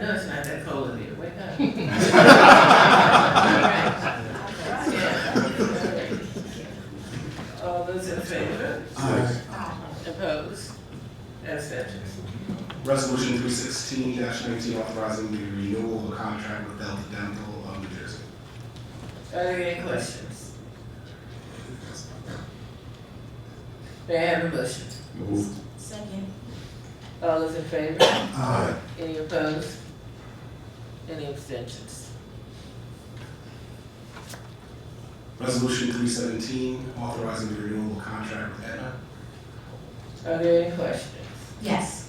No, it's not that cold in here, wake up. Yeah. All those in favor? Opposed? Abstentions? Resolution three sixteen nineteen authorizing the renewal of a contract with Delta Dental of New Jersey. Are there any questions? May I have a motion? Moved. Second. All those in favor? Aye. Any opposed? Any abstentions? Resolution three seventeen authorizing the renewal of a contract with Aetna. Are there any questions? Yes.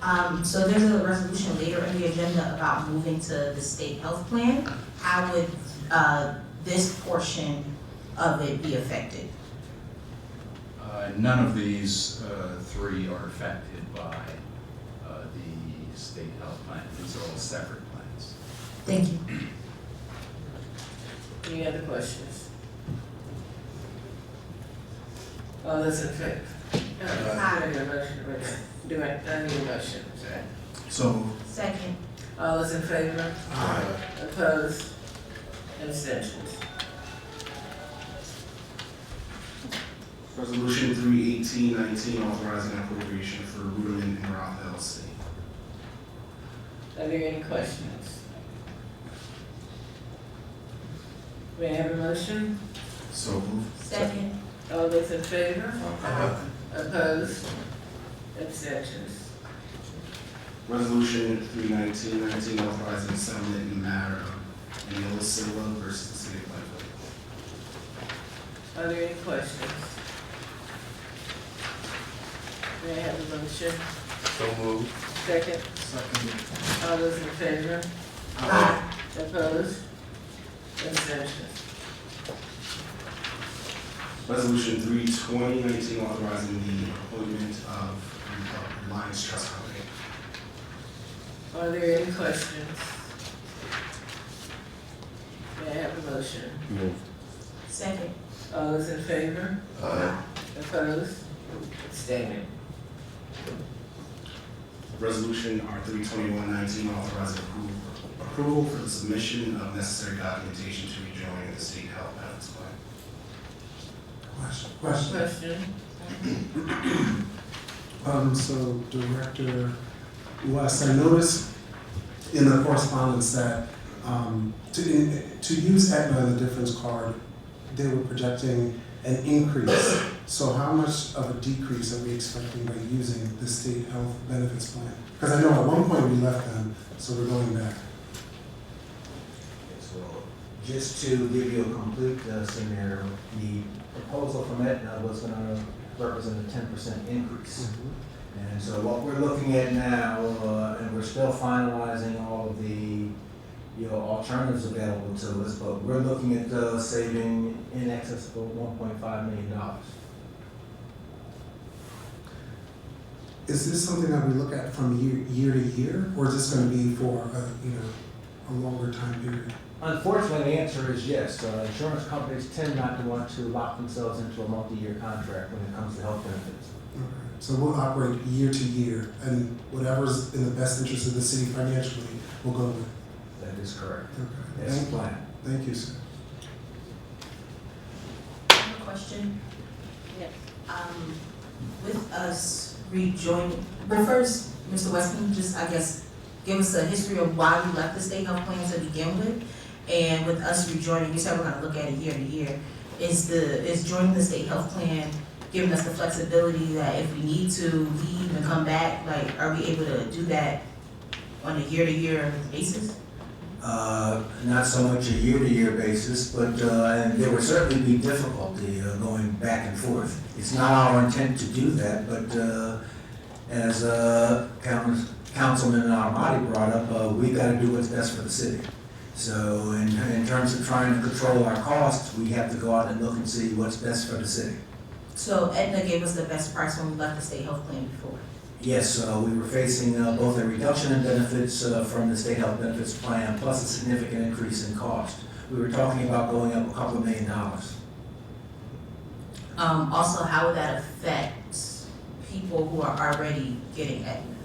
Um, so there's a resolution later in the agenda about moving to the state health plan. How would, uh, this portion of it be affected? Uh, None of these uh, three are affected by uh, the state health plan. These are all separate plans. Thank you. Any other questions? All those Oh, in favor? Do Aye. I need a motion, wait a minute. do I, I need a motion, sorry. So. Second. All those in favor, Aye. opposed, abstentions? Resolution three eighteen nineteen authorizing appropriation for Rudin and Roth LLC. Are there any questions? May I have a motion? So moved. Second. All those in favor? Opposed, abstentions? Resolution three nineteen nineteen authorizing settlement in the matter of Neil Silva versus the City of Lakeville. Are there any questions? May I have a motion? So moved. Second, all those in favor? Aye. Opposed? Abstentions? Resolution three twenty nineteen authorizing the appointment of uh, Lions Trust Company. Are there any questions? May I have a motion? Second. All those in favor? Opposed? Abstaining? Resolution R three twenty-one nineteen authorizing approval, approval for the submission of necessary documentation to rejoin the state health benefits plan. Question, question. Question? Um, so Director West, I noticed in the correspondence that, um, to, to use Aetna, the difference card, they were projecting an increase. So how much of a decrease are we expecting by using the state health benefits plan? Because I know at one point we left them, so we're going back. So, just to give you a complete uh, scenario, the proposal from Aetna was gonna represent a ten percent increase. And so what we're looking at now, uh, and we're still finalizing all of the, you know, alternatives available to us, but we're looking at, uh, saving in excess of one point five million dollars. Is this something that we look at from year, year to year, or is this gonna be for a, you know, a longer time period? Unfortunately, the answer is yes. Uh, Insurance companies tend not to want to lock themselves into a multi-year contract when it comes to health benefits. Okay, So we'll operate year to year, and whatever's in the best interest of the city financially, we'll go with. That is correct. Okay, That's the thank, plan. thank you, sir. I have a question. Yes. Um, with us rejoining, but first, Mr. West, can you just, I guess, give us a history of why we left the state health plan to begin with? And with us rejoining, you said we're gonna look at it year to year, is the, is joining the state health plan giving us the flexibility that if we need to leave and come back, like, are we able to do that on a year-to-year basis? uh, not so much a year-to-year basis, but uh, and there would certainly be difficulty uh, going back and forth. It's not our intent to do that, but uh, as uh, Council- Councilman Armati brought up, uh, we got to do what's best for the city. So in in terms of trying to control our costs, we have to go out and look and see what's best for the city. So Aetna gave us the best price when we left the state health plan before. Yes, uh, we were facing uh, both a reduction in benefits uh, from the state health benefits plan, plus a significant increase in cost. We were talking about going up a couple of million dollars. Um, also, how would that affect people who are already getting Aetna?